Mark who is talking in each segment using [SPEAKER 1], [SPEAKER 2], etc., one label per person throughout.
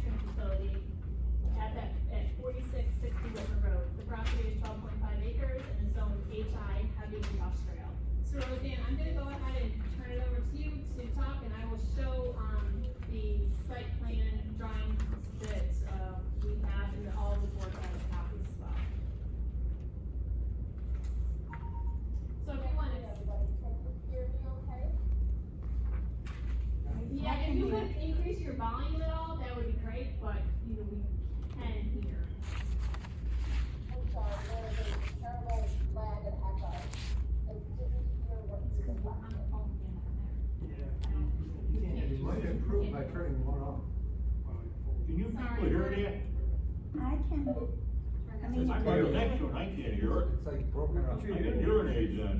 [SPEAKER 1] facility at that, at forty-six sixty River Road. The property is twelve point five acres and is zoned HI heavy industrial. So Roseanne, I'm gonna go ahead and turn it over to you to talk and I will show, um, the site plan drawings that, uh, we have and that all the board has copies as well. So if you want to. Yeah, if you could increase your volume at all, that would be great, but, you know, we can hear. On the phone,
[SPEAKER 2] You might improve by turning one off.
[SPEAKER 3] Can you people hear
[SPEAKER 4] I can, I
[SPEAKER 3] that? I'm
[SPEAKER 4] mean,
[SPEAKER 3] right next to it, I can't hear it.
[SPEAKER 2] It's like broken up.
[SPEAKER 3] I can urinate then.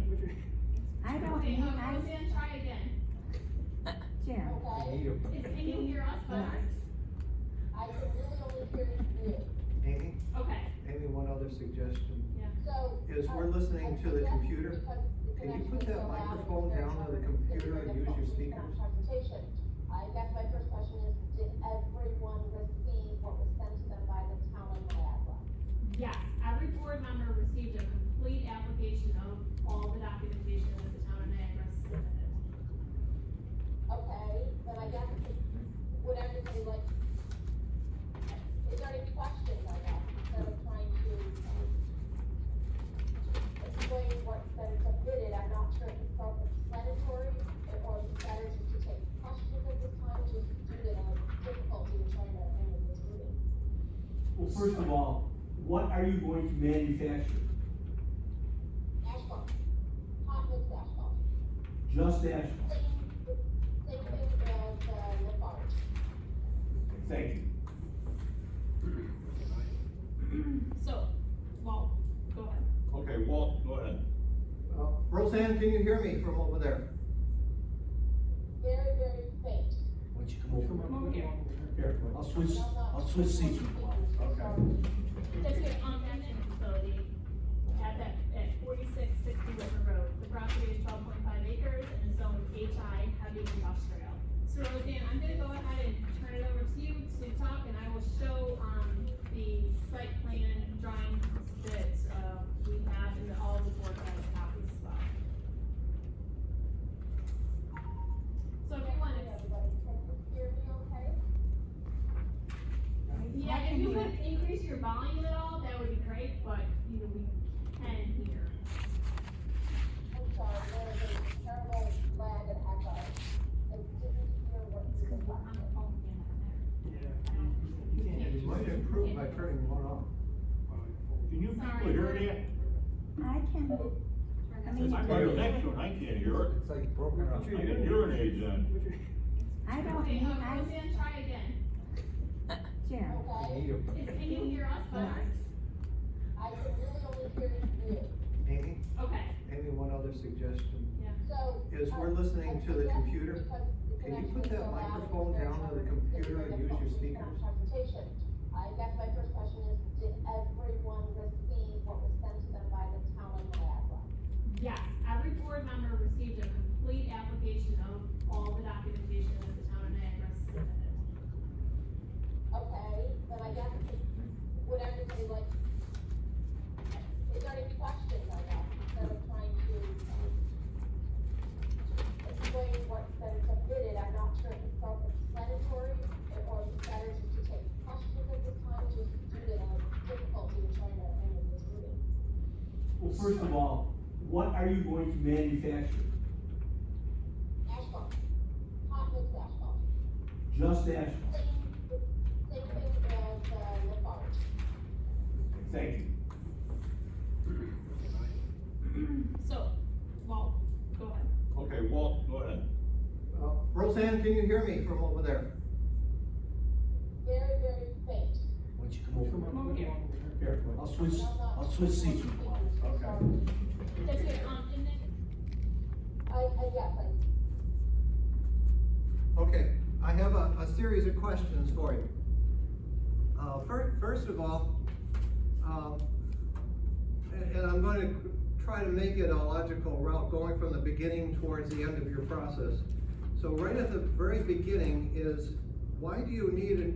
[SPEAKER 4] I
[SPEAKER 1] yeah.
[SPEAKER 4] don't
[SPEAKER 1] Okay,
[SPEAKER 4] need,
[SPEAKER 1] um,
[SPEAKER 4] I,
[SPEAKER 1] Roseanne, try again.
[SPEAKER 4] Jim,
[SPEAKER 2] They need
[SPEAKER 1] Is,
[SPEAKER 2] them.
[SPEAKER 1] can you hear us better?
[SPEAKER 5] I can really only hear you.
[SPEAKER 2] Amy,
[SPEAKER 1] Okay,
[SPEAKER 2] Amy, one other suggestion.
[SPEAKER 5] So.
[SPEAKER 2] Is we're listening to the computer, can you put that microphone down to the computer and use your speakers?
[SPEAKER 5] I guess my first question is, did everyone receive what was sent to them by the town of Niagara?
[SPEAKER 1] yes, every board member received a complete application of all the documentation that the town of Niagara submitted.
[SPEAKER 5] Okay, then I guess, would everybody like, is there any questions, I guess, instead of trying to um, explain what's been submitted, I'm not sure if it's self-explanatory, and- or if it's better to just take questions at this time, just due to the difficulty in trying to handle this meeting.
[SPEAKER 6] Well, first of all, what are you going to manufacture?
[SPEAKER 5] Asphalt, hot mix asphalt,
[SPEAKER 6] Just asphalt.
[SPEAKER 5] same, same thing as the Lafarge.
[SPEAKER 6] Thank you.
[SPEAKER 1] So, well, go ahead.
[SPEAKER 3] Okay, Walt, go ahead.
[SPEAKER 2] Uh, Roseanne, can you hear me from over there?
[SPEAKER 5] Very, very faint.
[SPEAKER 7] Why don't you come over?
[SPEAKER 1] Come over here.
[SPEAKER 6] Here,
[SPEAKER 7] I'll switch,
[SPEAKER 5] No, not-
[SPEAKER 7] I'll switch seats with you.
[SPEAKER 5] Sorry.
[SPEAKER 1] That's good, um, detention facility at that, at forty-six sixty River Road. The property is twelve point five acres and is zoned HI heavy industrial. So Roseanne, I'm gonna go ahead and turn it over to you to talk and I will show, um, the site plan drawings that, uh, we have and that all the board has copies as well. So if you want to. Yeah, if you could increase your volume at all, that would be great, but, you know, we can hear. On the phone, yeah.
[SPEAKER 2] You might improve by turning one off.
[SPEAKER 3] Can you people hear
[SPEAKER 4] I can, I
[SPEAKER 3] that?
[SPEAKER 4] mean,
[SPEAKER 3] I'm right next to it, I can't hear it.
[SPEAKER 2] It's like broken up.
[SPEAKER 3] I can urinate then.
[SPEAKER 4] I don't
[SPEAKER 1] Okay,
[SPEAKER 4] need,
[SPEAKER 1] um,
[SPEAKER 4] I,
[SPEAKER 1] Roseanne, try again.
[SPEAKER 4] Jim,
[SPEAKER 2] They need
[SPEAKER 1] Is,
[SPEAKER 2] them.
[SPEAKER 1] can you hear us better?
[SPEAKER 5] I can really only hear you.
[SPEAKER 2] Amy,
[SPEAKER 1] Okay,
[SPEAKER 2] Amy, one other suggestion.
[SPEAKER 5] So.
[SPEAKER 2] Is we're listening to the computer, can you put that microphone down to the computer and use your speakers?
[SPEAKER 5] I guess my first question is, did everyone receive what was sent to them by the town of Niagara?
[SPEAKER 1] yes, every board member received a complete application of all the documentation that the town of Niagara submitted.
[SPEAKER 5] Okay, then I guess, would everybody like, is there any questions on that, instead of trying to um, explain what's been submitted, I'm not sure if it's self-explanatory, and- or if it's better just to take questions at this time, just due to the difficulty in trying to handle this meeting.
[SPEAKER 6] Well, first of all, what are you going to manufacture?
[SPEAKER 5] Asphalt, hot mix asphalt,
[SPEAKER 6] Just asphalt.
[SPEAKER 5] same, same thing as the Lafarge.
[SPEAKER 6] Thank you.
[SPEAKER 1] So, well, go ahead.
[SPEAKER 3] Okay, Walt, go ahead.
[SPEAKER 2] Uh, Roseanne, can you hear me from over there?
[SPEAKER 5] Very, very faint.
[SPEAKER 7] Why don't you come over?
[SPEAKER 1] Come over here.
[SPEAKER 6] Here,
[SPEAKER 7] I'll switch,
[SPEAKER 5] No, not-
[SPEAKER 7] I'll switch seats with you.
[SPEAKER 5] Sorry.
[SPEAKER 1] That's good, um, and then
[SPEAKER 5] I, I, yes, I
[SPEAKER 2] Okay, I have a, a series of questions for you. Uh, first, first of all, um, and, and I'm going to try to make it a logical route, going from the beginning towards the end of your process. So right at the very beginning is, why do you need an